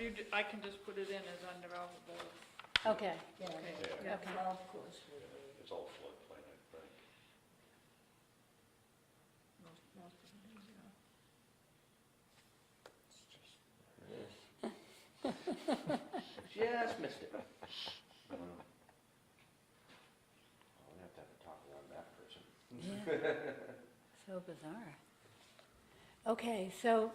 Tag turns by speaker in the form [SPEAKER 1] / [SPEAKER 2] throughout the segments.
[SPEAKER 1] you, d- I can just put it in as undevelopable.
[SPEAKER 2] Okay,
[SPEAKER 3] Yeah,
[SPEAKER 1] Okay.
[SPEAKER 3] the
[SPEAKER 2] Okay.
[SPEAKER 3] golf course would be.
[SPEAKER 4] It's all floodplain, I think.
[SPEAKER 1] Most- most of it is, yeah.
[SPEAKER 5] Just missed it. Well, We'd have to have a talk about that person.
[SPEAKER 2] yeah. So bizarre. Okay, so,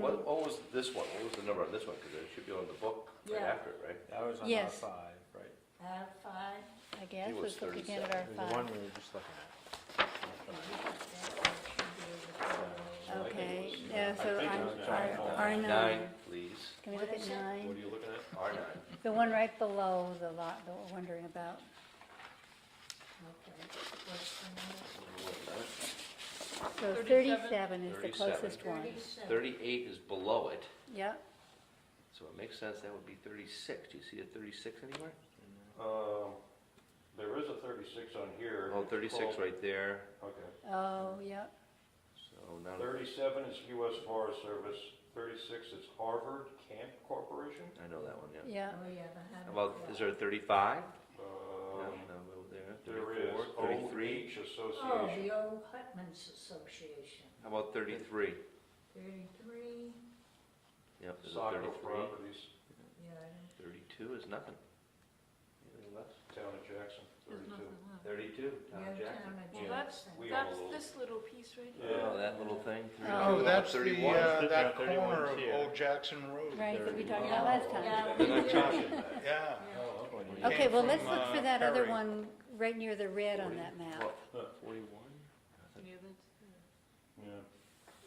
[SPEAKER 4] What, what was this one? What was the number on this one? Because it should be on the book right
[SPEAKER 3] Yeah.
[SPEAKER 4] after it, right?
[SPEAKER 6] That was on R
[SPEAKER 2] Yes.
[SPEAKER 6] five, right?
[SPEAKER 3] R Uh, five,
[SPEAKER 2] I guess
[SPEAKER 4] He
[SPEAKER 2] we're
[SPEAKER 4] was
[SPEAKER 2] looking at our
[SPEAKER 6] The one
[SPEAKER 2] five.
[SPEAKER 6] we were just looking at.
[SPEAKER 3] if you put that, that should be the total.
[SPEAKER 2] Okay,
[SPEAKER 4] was, uh,
[SPEAKER 2] yeah,
[SPEAKER 4] I
[SPEAKER 2] so
[SPEAKER 4] think it
[SPEAKER 2] I'm-
[SPEAKER 4] was
[SPEAKER 2] our,
[SPEAKER 6] nine.
[SPEAKER 2] our
[SPEAKER 4] Uh, Nine,
[SPEAKER 2] nine.
[SPEAKER 4] please.
[SPEAKER 2] Can we
[SPEAKER 3] What
[SPEAKER 2] look at
[SPEAKER 3] is it?
[SPEAKER 4] What
[SPEAKER 2] nine?
[SPEAKER 4] are you looking at? R nine.
[SPEAKER 2] The one right below the lot that we're wondering about.
[SPEAKER 3] Okay, what's the number?
[SPEAKER 2] So
[SPEAKER 1] 37?
[SPEAKER 2] thirty-seven is the
[SPEAKER 4] 37.
[SPEAKER 2] closest one.
[SPEAKER 3] Thirty-seven.
[SPEAKER 4] Thirty-eight is below it,
[SPEAKER 2] Yep,
[SPEAKER 4] so it makes sense that would be thirty-six. Do you see a thirty-six anywhere?
[SPEAKER 7] Um, there is a thirty-six on here.
[SPEAKER 4] Oh, thirty-six
[SPEAKER 7] Well,
[SPEAKER 4] right there.
[SPEAKER 7] Okay.
[SPEAKER 2] oh, yep,
[SPEAKER 4] So now,
[SPEAKER 7] Thirty-seven is U.S. Forest Service, thirty-six is Harvard Camp Corporation.
[SPEAKER 4] I know that one, yeah.
[SPEAKER 2] yep.
[SPEAKER 3] Oh, yeah, the hundred.
[SPEAKER 4] About, is there a thirty-five? No,
[SPEAKER 7] Um,
[SPEAKER 4] no, over there.
[SPEAKER 7] there is
[SPEAKER 4] 34, Thirty-three.
[SPEAKER 7] OH
[SPEAKER 3] Oh,
[SPEAKER 7] Association.
[SPEAKER 3] the old Hutman's Association,
[SPEAKER 4] How about thirty-three?
[SPEAKER 3] thirty-three,
[SPEAKER 4] Yep, there's a
[SPEAKER 7] Saco
[SPEAKER 4] thirty-three.
[SPEAKER 7] Properties,
[SPEAKER 3] yeah, I don't-
[SPEAKER 4] Thirty-two is nothing. Anything left?
[SPEAKER 7] Town of Jackson,
[SPEAKER 1] There's
[SPEAKER 7] thirty-two.
[SPEAKER 1] nothing left.
[SPEAKER 4] Thirty-two, Tom
[SPEAKER 3] yeah,
[SPEAKER 4] Jackson.
[SPEAKER 3] Town of
[SPEAKER 1] Well, that's,
[SPEAKER 3] Jackson.
[SPEAKER 7] We own a
[SPEAKER 1] that's
[SPEAKER 7] little-
[SPEAKER 1] this little piece right here.
[SPEAKER 7] Yeah.
[SPEAKER 4] Oh, that little thing,
[SPEAKER 2] Oh,
[SPEAKER 4] thirty-two,
[SPEAKER 8] that's the,
[SPEAKER 4] thirty-one.
[SPEAKER 8] uh,
[SPEAKER 6] Yeah,
[SPEAKER 8] that
[SPEAKER 6] 31
[SPEAKER 8] corner
[SPEAKER 6] is
[SPEAKER 8] of
[SPEAKER 6] here.
[SPEAKER 8] Old Jackson Road.
[SPEAKER 2] Right, that we talked
[SPEAKER 3] Yeah,
[SPEAKER 2] about last time.
[SPEAKER 3] yeah,
[SPEAKER 7] Oh, They're
[SPEAKER 3] we
[SPEAKER 7] not
[SPEAKER 3] did.
[SPEAKER 7] changing that.
[SPEAKER 8] Yeah.
[SPEAKER 6] Yeah.
[SPEAKER 8] Came
[SPEAKER 2] Okay, well,
[SPEAKER 8] from,
[SPEAKER 2] let's look for
[SPEAKER 8] uh,
[SPEAKER 2] that other
[SPEAKER 8] Perry.
[SPEAKER 2] one right near the red on that map.
[SPEAKER 4] Forty-one?
[SPEAKER 1] Yeah, that's
[SPEAKER 7] Yeah.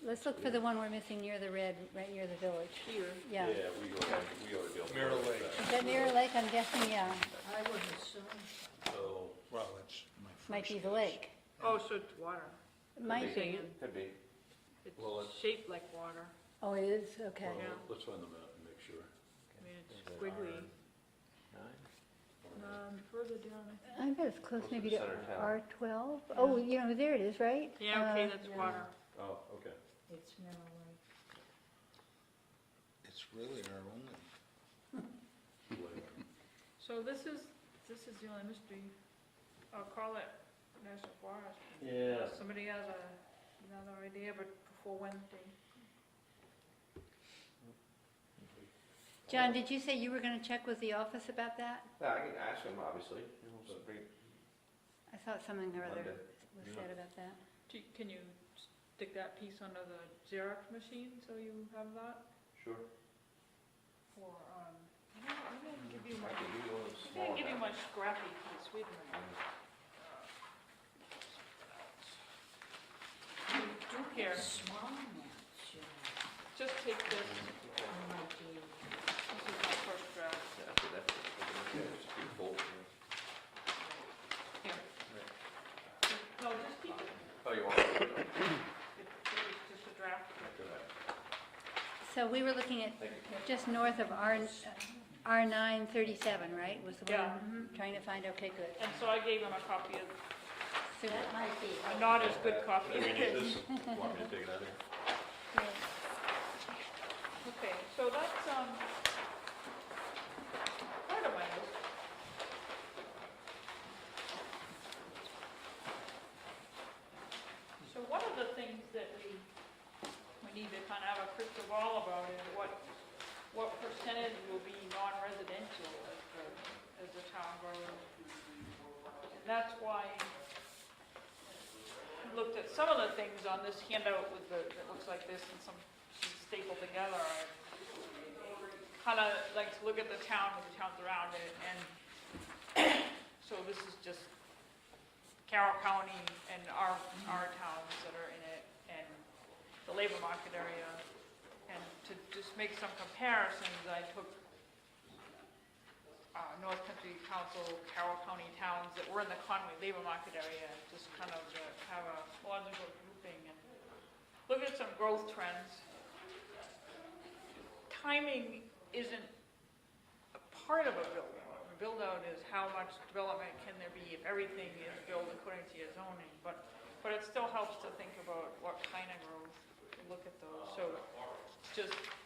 [SPEAKER 2] Let's look for the one we're missing near the red, right near the village.
[SPEAKER 1] here.
[SPEAKER 2] Yeah.
[SPEAKER 7] Yeah, we ought to, we ought to be able to.
[SPEAKER 8] Mirror
[SPEAKER 7] work with
[SPEAKER 8] Lake.
[SPEAKER 7] that.
[SPEAKER 2] Is that Mirror Lake? I'm guessing, yeah,
[SPEAKER 3] I would assume,
[SPEAKER 7] So,
[SPEAKER 8] Well, it's my first.
[SPEAKER 2] might be the lake.
[SPEAKER 1] Oh, so it's water.
[SPEAKER 2] It Might be.
[SPEAKER 4] Could be.
[SPEAKER 7] Well, it's-
[SPEAKER 1] It's shaped like water.
[SPEAKER 2] Oh, it is, okay.
[SPEAKER 7] well,
[SPEAKER 1] Yeah.
[SPEAKER 7] let's find them out and make sure.
[SPEAKER 1] I mean,
[SPEAKER 6] Is
[SPEAKER 1] it's
[SPEAKER 6] it
[SPEAKER 1] squiggly.
[SPEAKER 7] Or-
[SPEAKER 1] Um, further down. I-
[SPEAKER 2] I bet it's close
[SPEAKER 4] Close to
[SPEAKER 2] maybe
[SPEAKER 4] the
[SPEAKER 2] to
[SPEAKER 4] center of town.
[SPEAKER 2] R twelve. Oh, you know, there it is, right?
[SPEAKER 1] Yeah, okay,
[SPEAKER 2] Uh,
[SPEAKER 1] that's
[SPEAKER 3] yeah.
[SPEAKER 1] water.
[SPEAKER 7] Oh, okay.
[SPEAKER 3] it's Middle Lake.
[SPEAKER 8] It's really our only.
[SPEAKER 7] Lake.
[SPEAKER 1] So this is, this is the only mystery, I'll call it National Forest.
[SPEAKER 4] Yeah.
[SPEAKER 1] Somebody has a, another idea, but before Wednesday.
[SPEAKER 2] John, did you say you were gonna check with the office about that?
[SPEAKER 4] Yeah, I can ask him, obviously. We'll bring it
[SPEAKER 2] I thought something or other
[SPEAKER 4] Monday.
[SPEAKER 2] was
[SPEAKER 4] Yeah.
[SPEAKER 2] said about that.
[SPEAKER 1] Do, you- can you stick that piece under the Xerox machine so you have that?
[SPEAKER 4] Sure.
[SPEAKER 1] Or, um, I don't, I Mm, didn't give you
[SPEAKER 4] I
[SPEAKER 1] my,
[SPEAKER 4] can
[SPEAKER 1] I
[SPEAKER 4] do one of the
[SPEAKER 1] didn't
[SPEAKER 4] smaller
[SPEAKER 1] give you
[SPEAKER 4] maps.
[SPEAKER 1] my scrappy piece, uh, wait a minute. Do care,
[SPEAKER 3] Small amounts, uh, you know,
[SPEAKER 1] just take this,
[SPEAKER 3] unlike the-
[SPEAKER 1] this is my first draft,
[SPEAKER 4] Yeah, I think that's- I think that's pretty cool, yeah.
[SPEAKER 1] here. No, just keep it,
[SPEAKER 4] Oh, you want? it?
[SPEAKER 1] it's just a draft.
[SPEAKER 4] Good idea.
[SPEAKER 2] So we were looking at
[SPEAKER 4] Thank you.
[SPEAKER 2] just north of R, R nine thirty-seven, right? Was the one
[SPEAKER 1] Yeah,
[SPEAKER 2] I'm trying to find, okay, good.
[SPEAKER 1] And so I gave him a copy of,
[SPEAKER 2] Super.
[SPEAKER 3] That might be.
[SPEAKER 1] a not as good copy.
[SPEAKER 7] Do we need this? Want me to take it out of here?
[SPEAKER 2] Yeah.
[SPEAKER 1] Okay, so that's, um, part of my list. So one of the things that we, we need to kind of have a crystal ball about is what, what percentage will be non-residential as the, as the town grows. And that's why I looked at some of the things on this handout with the, that looks like this and some stapled together. Kind of like to look at the town and the towns around it, and so this is just Carroll County and our, our towns that are in it, and the labor market area. And to just make some comparisons, I took uh, North Country Council, Carroll County towns that were in the Conway labor market area, and just kind of uh, have a logical grouping and look at some growth trends. Timing isn't a part of a build-out. A build-out is how much development can there be if everything is built according to your zoning, but, but it still helps to think about what kind of growth, to look at those. So just